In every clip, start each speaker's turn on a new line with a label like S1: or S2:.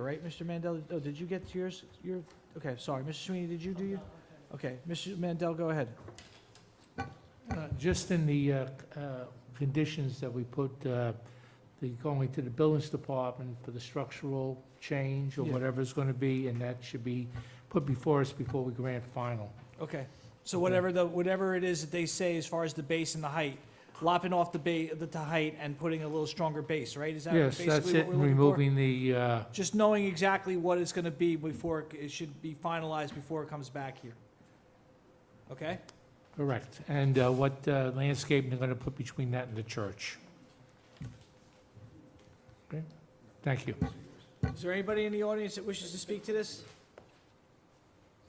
S1: right, Mr. Mandel? Oh, did you get to yours? Your, okay, sorry. Mr. Sweeney, did you do your? Okay, Mr. Mandel, go ahead.
S2: Uh, Just in the uh, c- uh, conditions that we put, uh, the going to the buildings department for the structural change or
S1: Yeah.
S2: whatever it's going to be, and that should be put before us before we grant final.
S1: Okay, so whatever the, whatever it is that they say as far as the base and the height, lopping off the ba, the, the height and putting a little stronger base, right? Is that
S2: Yes,
S1: basically
S2: that's
S1: what
S2: it,
S1: we're looking for?
S2: removing the, uh,
S1: Just knowing exactly what it's gonna be before, it- it should be finalized before it comes back here. Okay?
S2: correct, and uh, what uh, landscaping they're going to put between that and the church. Okay, thank you.
S1: Is there anybody in the audience that wishes to speak to this?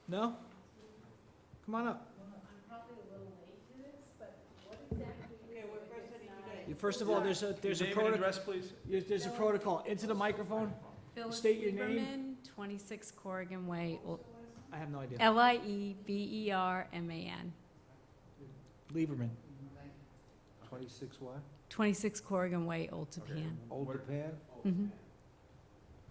S1: No? Come on up. You- First of all, there's a, there's a protocol,
S3: please?
S1: there's a protocol. Into the microphone?
S4: Phyllis
S1: State your name.
S4: Lieberman, 26 Corrigan Way, Ol- E
S1: I have no idea.
S4: L-I-E-B-E-R-M-A-N,
S1: Lieberman.
S3: 26 what?
S4: 26 Corrigan Way, Old Tapan.
S3: Old Japan?
S4: Mhm.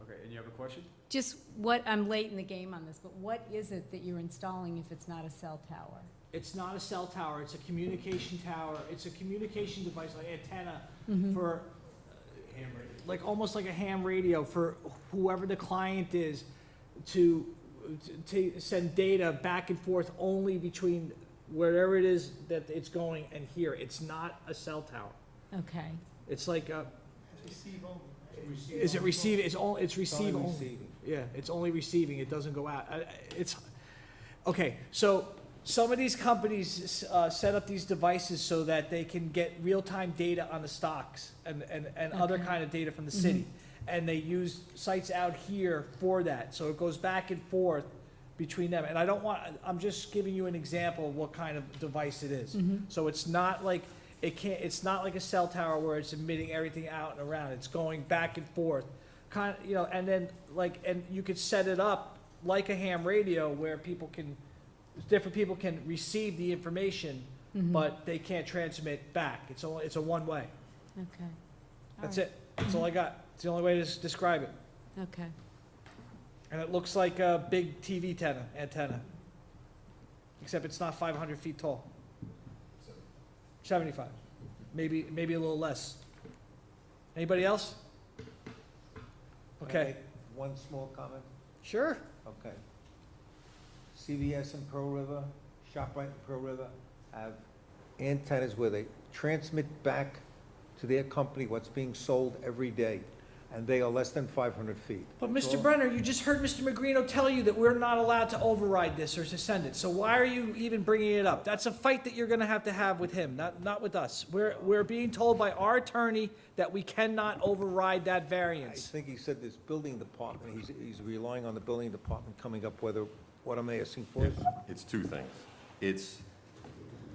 S3: Okay, and you have a question?
S4: Just what, I'm late in the game on this, but what is it that you're installing if it's not a cell tower?
S1: It's not a cell tower, it's a communication tower. It's a communication device, like antenna
S4: Mhm.
S1: for, uh, like, almost like a ham radio for whoever the client is to, to to send data back and forth only between wherever it is that it's going and here. It's not a cell tower.
S4: Okay,
S1: It's like a. Is it receive, it's all, it's receive only. Yeah, it's only receiving, it doesn't go out. I- I- It's, okay, so some of these companies uh, set up these devices so that they can get real-time data on the stocks and, and, and other
S4: Okay.
S1: kind of data from the city. And they use sites out here for that, so it goes back and forth between them. And I don't want, I'm just giving you an example of what kind of device it is. So it's not like, it can't, it's not like a cell tower where it's emitting everything out and around, it's going back and forth. Kind, you know, and then, like, and you could set it up like a ham radio where people can, different people can receive the information,
S4: Mm-hmm.
S1: but they can't transmit back, it's only, it's a one-way,
S4: okay. All
S1: that's
S4: right.
S1: it, that's all I got, it's the only way to s- describe it.
S4: Okay.
S1: And it looks like a big TV antenna, antenna. Except it's not five hundred feet tall. Seventy-five, maybe, maybe a little less. Anybody else? Okay,
S3: One small comment,
S1: sure,
S3: okay. CVS in Pearl River, ShopRite in Pearl River have antennas where they transmit back to their company what's being sold every day, and they are less than 500 feet.
S1: but
S3: That's
S1: Mr.
S3: all.
S1: Brenner, you just heard Mr. Magrino tell you that we're not allowed to override this or to send it, so why are you even bringing it up? That's a fight that you're gonna have to have with him, not, not with us. We're, we're being told by our attorney that we cannot override that
S3: I
S1: variance.
S3: think he said this building department, he's, he's relying on the building department coming up whether, what am I asking for?
S5: It's two things. It's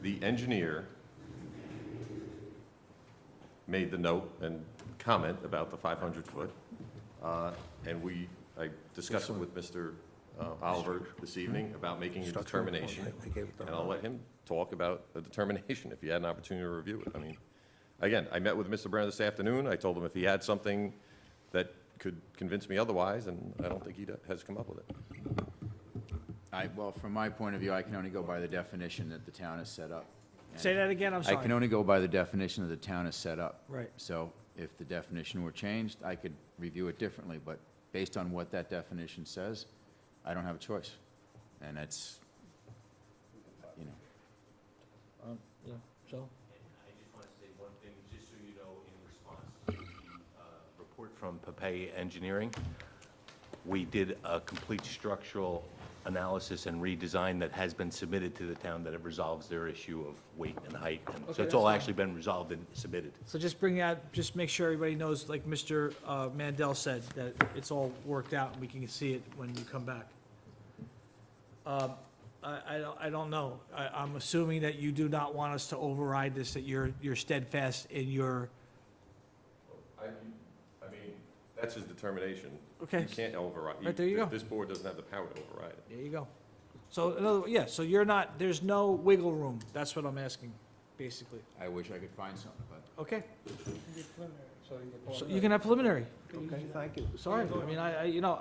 S5: the engineer made the note and comment about the 500-foot, uh, and we, I discussed it with Mr. uh, Oliver this evening about making a determination,
S3: I gave it to
S5: and
S3: him.
S5: I'll let him talk about the determination if he had an opportunity to review it. I mean, again, I met with Mr. Brown this afternoon. I told him if he had something that could convince me otherwise, and I don't think he has come up with it.
S6: I, well, from my point of view, I can only go by the definition that the town has set up. And
S1: Say that again, I'm
S6: I
S1: sorry.
S6: can only go by the definition that the town has set up.
S1: Right.
S6: So if the definition were changed, I could review it differently, but based on what that definition says, I don't have a choice. And it's, you know.
S1: Yeah, so.
S7: I just want to say one thing, just so you know, in response to the uh, report from Papay Engineering, we did a complete structural analysis and redesign that has been submitted to the town that it resolves their issue of weight and height. and
S1: Okay,
S7: So
S1: that's
S7: it's all
S1: fine.
S7: actually been resolved and submitted.
S1: So just bring out, just make sure everybody knows, like Mr. uh, Mandel said, that it's all worked out and we can see it when you come back. Um, I, I don't, I don't know. I, I'm assuming that you do not want us to override this, that you're, you're steadfast in your,
S5: I, I mean, that's his determination.
S1: Okay.
S5: You can't override. he-
S1: Right, there you go.
S5: This board doesn't have the power to override it.
S1: there you go. So, in other, yeah, so you're not, there's no wiggle room. That's what I'm asking, basically.
S6: I wish I could find something, but
S1: Okay, so you can have preliminary.
S3: Okay, thank you.
S1: Sorry, I mean, I, I, you know,